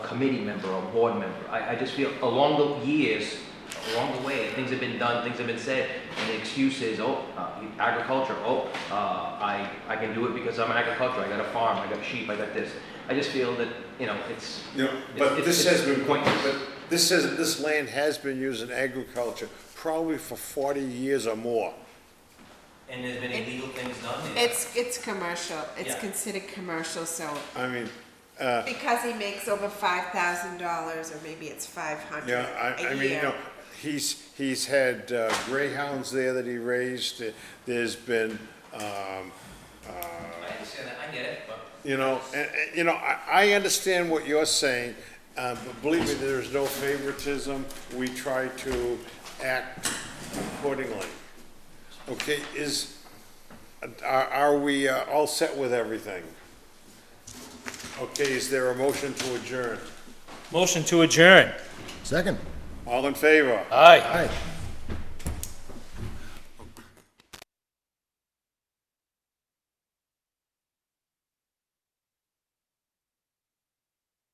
committee member or a board member. I, I just feel along the years, along the way, things have been done, things have been said, and the excuse is, oh, uh, agriculture, oh, uh, I, I can do it because I'm agriculture, I got a farm, I got sheep, I got this. I just feel that, you know, it's, You know, but It's- this it's- has been, it's but pointless. this says, this land has been used in agriculture probably for forty years or more. And there's been illegal things done there. It's, it's commercial, it's Yeah. considered commercial, so, I mean, Uh. because he makes over five thousand dollars, or maybe it's five hundred yeah, I, I a mean, you know, year. he's, he's had uh, greyhounds there that he raised, there's been, um, I understand that, I get it, but You know, and, and, you know, I, I understand what you're saying, uh, but believe me, there is no favoritism. We try to act accordingly. Okay, is, are, are we uh, all set with everything? Okay, is there a motion to adjourn? Motion to adjourn. Second. All in favor? Aye. Aye.